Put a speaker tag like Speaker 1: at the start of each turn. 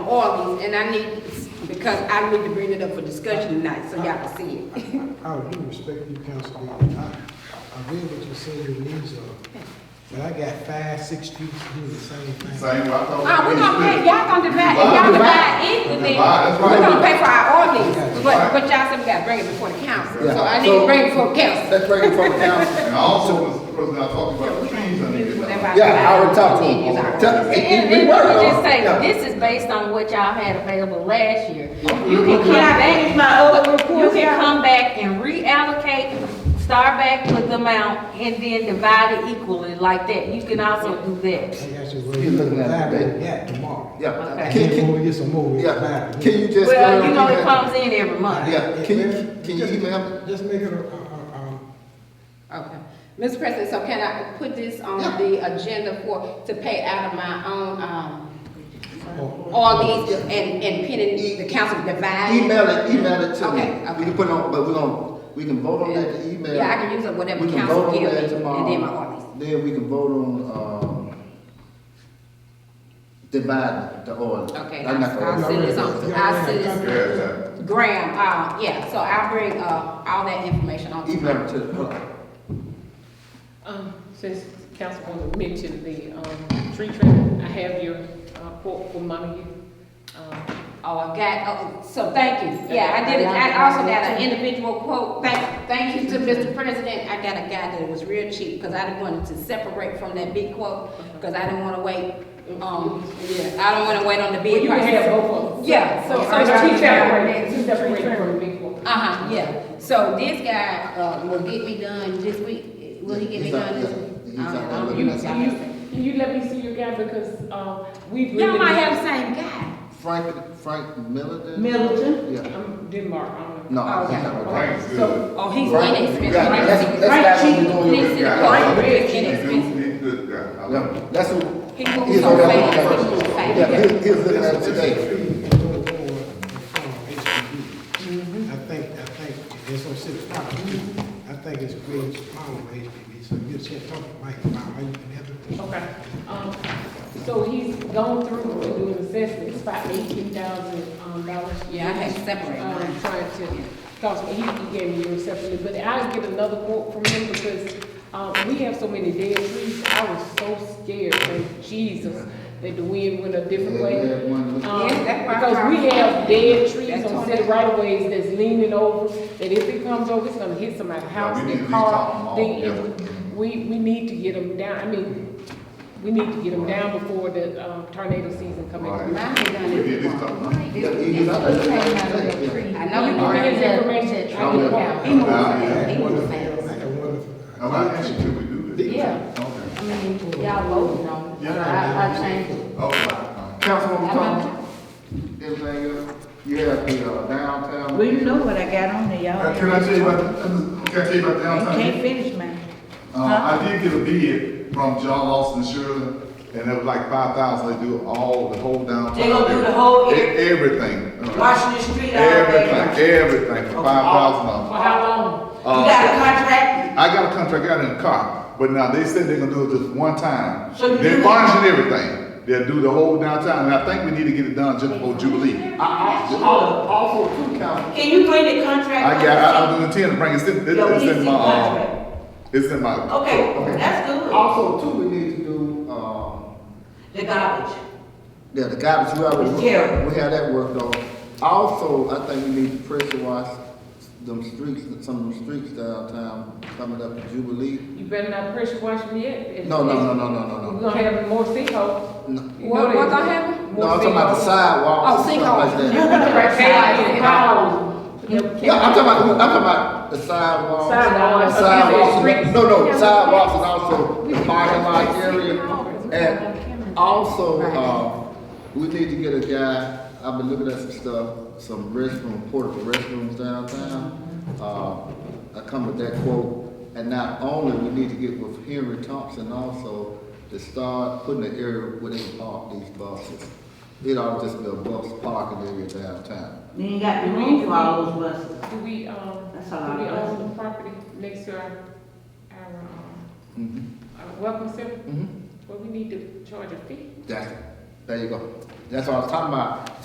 Speaker 1: all these, and I need, because I need to bring it up for discussion tonight, so y'all can see it.
Speaker 2: Out of due respect to you, Councilwoman, I, I read what you said your needs are, but I got five, six streets to do the same thing.
Speaker 3: Same, I thought.
Speaker 1: Oh, we gonna pay, y'all gonna divide, if y'all
Speaker 3: Divide,
Speaker 1: divide equally,
Speaker 3: divide, that's
Speaker 1: we
Speaker 3: right.
Speaker 1: gonna pay for our ordinance,
Speaker 2: That's
Speaker 1: but,
Speaker 3: right.
Speaker 1: but y'all said we gotta bring it before the council,
Speaker 4: Yeah,
Speaker 1: so I need to
Speaker 4: so-
Speaker 1: bring it before council.
Speaker 4: Let's bring it from the council.
Speaker 3: And also, Mr. President, I talked about the trees I need to
Speaker 1: Whatever
Speaker 3: down.
Speaker 4: Yeah, I already
Speaker 1: divide,
Speaker 4: talked to him.
Speaker 1: we use our-
Speaker 4: Tell- it- it-
Speaker 5: And
Speaker 4: we
Speaker 5: and
Speaker 4: were,
Speaker 5: let me
Speaker 4: uh,
Speaker 5: just say,
Speaker 4: yeah.
Speaker 5: this is based on what y'all had available last year.
Speaker 3: Okay.
Speaker 5: You can come
Speaker 3: Can I
Speaker 5: back,
Speaker 1: my old report,
Speaker 5: you can
Speaker 1: y'all?
Speaker 5: come back and reallocate, start back with the amount, and then divide it equally like that. You can also do
Speaker 2: I
Speaker 5: that.
Speaker 2: got you, well,
Speaker 4: You're
Speaker 2: you
Speaker 4: looking at
Speaker 2: five,
Speaker 4: it.
Speaker 2: we got tomorrow.
Speaker 4: Yeah.
Speaker 5: Okay.
Speaker 2: And
Speaker 4: Can,
Speaker 2: then when
Speaker 4: can,
Speaker 2: we get some more, we'll
Speaker 4: yeah.
Speaker 2: divide it.
Speaker 4: Can you just?
Speaker 5: Well,
Speaker 4: uh,
Speaker 5: you know, it
Speaker 4: yeah.
Speaker 5: comes in every month.
Speaker 4: Yeah, can you, can you
Speaker 2: Just-
Speaker 4: email me?
Speaker 2: Just make it a, a, a,
Speaker 1: Okay. Mr. President, so can I put this on
Speaker 4: Yeah.
Speaker 1: the agenda for, to pay out of my own, um,
Speaker 2: a. a-
Speaker 1: all these and, and pending the council divide?
Speaker 4: Email it, email it to me.
Speaker 1: Okay, okay.
Speaker 4: We can put it on, but we gonna, we can vote on that, to email.
Speaker 1: Yeah, I can use up whatever
Speaker 4: We can
Speaker 1: council
Speaker 4: vote on
Speaker 1: give
Speaker 4: that
Speaker 1: me, and
Speaker 4: tomorrow.
Speaker 1: then my ordinance.
Speaker 4: Then we can vote on, um, divide the order.
Speaker 1: Okay,
Speaker 4: I'm not
Speaker 1: I'll
Speaker 4: gonna-
Speaker 1: send this on, I'll send this,
Speaker 3: Yeah, yeah.
Speaker 1: Graham, uh, yeah, so I'll bring, uh, all that information on.
Speaker 4: Email it to, the-
Speaker 6: Um, since Councilwoman mentioned the, um, tree trimming, I have your, uh, quote from Montague. Um,
Speaker 1: Oh, I got, oh, so thank you, yeah, I did, it. I also got an individual quote, thank, thank you to Mr. President, I got a guy that was real cheap, cause I didn't want to separate from that big quote, cause I didn't wanna wait, um, yeah, I don't wanna wait on the
Speaker 6: Well,
Speaker 1: big
Speaker 6: you can
Speaker 1: price.
Speaker 6: have both of them.
Speaker 1: Yeah, so.
Speaker 6: So,
Speaker 1: so-
Speaker 6: so tree trimming, tree trimming would be cool.
Speaker 1: Uh-huh, yeah, so this guy, uh, will get me done this week, will he get me
Speaker 4: He's not-
Speaker 1: done this?
Speaker 4: he's
Speaker 1: week? Uh,
Speaker 4: not-
Speaker 1: I
Speaker 4: I'm
Speaker 1: don't
Speaker 6: You,
Speaker 4: looking
Speaker 1: know.
Speaker 4: at
Speaker 6: you, you let me see your guy because, um, we.
Speaker 1: Y'all might have the same guy.
Speaker 4: Frank, Frank Milligan?
Speaker 5: Middleton?
Speaker 4: Yeah.
Speaker 6: Um, Denmark, I don't know.
Speaker 4: No, I think I would.
Speaker 3: Right, good.
Speaker 1: So, oh, he's
Speaker 4: Right.
Speaker 1: inexpensive.
Speaker 3: Yeah,
Speaker 1: Right.
Speaker 4: that's- that's
Speaker 1: Right.
Speaker 4: not what we're doing.
Speaker 1: He's in the
Speaker 3: Yeah.
Speaker 1: car.
Speaker 6: Right.
Speaker 1: Inexpensive.
Speaker 3: He's good, guy. I love him.
Speaker 4: Yeah, that's who.
Speaker 1: He moves
Speaker 4: he's
Speaker 1: so
Speaker 4: on that
Speaker 1: fast,
Speaker 4: one
Speaker 1: he moves
Speaker 4: first.
Speaker 1: fast.
Speaker 4: Yeah, he, he was looking at it
Speaker 3: This-
Speaker 4: today.
Speaker 2: go forward and form HPD. I think, I think, it's on city property, I think it's creating some problem with HPD, so you should talk to Mike about how you can help it.
Speaker 6: Okay, um, so he's gone through and doing assessment, it's about eighteen thousand, um, dollars.
Speaker 1: Yeah, I had to separate mine.
Speaker 6: Um, trying to, cause he, he gave me yours separately, but I'll get another quote from him because, um, we have so many dead trees, I was so scared, thank Jesus, that the wind went a different
Speaker 4: Yeah,
Speaker 6: way.
Speaker 4: we had one.
Speaker 6: Um,
Speaker 1: Yeah, that's my
Speaker 6: because we
Speaker 1: problem.
Speaker 6: have dead trees
Speaker 1: That's
Speaker 6: on
Speaker 1: all.
Speaker 6: city right of ways that's leaning over, that if it comes over, it's gonna hit somebody's house,
Speaker 3: we need
Speaker 6: their
Speaker 3: to talk them
Speaker 6: car,
Speaker 3: all
Speaker 6: then it
Speaker 3: together.
Speaker 6: we, we need to get them down, I mean, we need to get them down before the um, tornado season comes in.
Speaker 1: Mine is done
Speaker 3: We did
Speaker 1: this
Speaker 3: this
Speaker 1: month.
Speaker 3: stuff.
Speaker 4: Yeah, he- he's on that one today.
Speaker 1: I
Speaker 6: You
Speaker 1: know
Speaker 6: give me
Speaker 1: he
Speaker 6: his
Speaker 1: did.
Speaker 6: information, I
Speaker 4: Yeah.
Speaker 6: can
Speaker 1: Yeah,
Speaker 6: call.
Speaker 1: He moves
Speaker 3: Yeah.
Speaker 1: fast,
Speaker 2: I
Speaker 1: he moves
Speaker 2: got wonderful,
Speaker 1: fast.
Speaker 2: I got wonderful.
Speaker 3: I'm not asking you, we do this.
Speaker 6: Yeah.
Speaker 3: Okay.
Speaker 5: I mean, y'all loading on, so I, I changed it.
Speaker 3: Oh, wow.
Speaker 4: Councilwoman Thomas, everything else, you have the uh, downtown.
Speaker 7: Well, you know what I got on there,
Speaker 3: Uh,
Speaker 7: y'all.
Speaker 3: Can I tell you about, can I tell you about
Speaker 7: You
Speaker 3: downtown?
Speaker 7: can't finish mine.
Speaker 3: Uh, I did get a bid from John Lawson Shirley, and it was like five thousand, they do all, the whole downtown.
Speaker 8: They gonna do the whole
Speaker 3: E-
Speaker 8: area?
Speaker 3: Everything. Uh,
Speaker 8: Washington Street all day.
Speaker 3: Everything, everything, for five thousand dollars.
Speaker 6: For how long?
Speaker 8: You got a contract,
Speaker 3: I got a contract out in the car, but now they said they're gonna do it just one time.
Speaker 8: So you
Speaker 3: They
Speaker 8: do-
Speaker 3: varnish and everything, they'll do the whole downtown, and I think we need to get it done just before Jubilee.
Speaker 4: I also, also two council,
Speaker 8: can you bring the contract?
Speaker 3: I got, I, I'm intending to bring it, it's in,
Speaker 8: Your
Speaker 3: it's in
Speaker 8: leasing
Speaker 3: my,
Speaker 8: contract.
Speaker 3: um, it's in my.
Speaker 8: Okay, that's good,
Speaker 4: also two we need to do, um,
Speaker 8: the garbage.
Speaker 4: yeah, the garbage, we already.
Speaker 8: Yeah.
Speaker 4: We had that worked on. Also, I think we need to pressure wash them streets, some of them streets downtown coming up to Jubilee.
Speaker 6: You better not pressure wash me yet.
Speaker 4: No, no, no, no, no, no, no.
Speaker 6: We're gonna have more sinkholes.
Speaker 4: No.
Speaker 6: You know
Speaker 1: What-
Speaker 6: that.
Speaker 1: what gonna happen?
Speaker 4: No, I'm talking about the
Speaker 1: Oh,
Speaker 4: sidewalks and stuff like that.
Speaker 6: Right, sinkholes.
Speaker 4: Yeah, I'm talking about, I'm talking about the sidewalks.
Speaker 6: Sidewalks.
Speaker 4: Sidewalks,
Speaker 6: Okay,
Speaker 4: no, no,
Speaker 6: streets.
Speaker 4: sidewalks and also the parking lot area.
Speaker 6: Oh,
Speaker 4: And also, um, we need to get a guy, I've been looking at some stuff, some restroom, portable restrooms downtown. Uh, I come with that quote, and not only, we need to get with Henry Thompson also to start putting an area where they can park these buses. It ought to just be a bus parking area downtown.
Speaker 8: You ain't got the room for all those buses.
Speaker 6: Do we, um, do
Speaker 8: That's a lot
Speaker 6: we
Speaker 8: of
Speaker 6: own the property next to our, our, um,
Speaker 4: Mhm.
Speaker 6: our welcome center?
Speaker 4: Mhm.
Speaker 6: Well, we need to charge a fee.
Speaker 4: That's, there you go. That's what I was talking about.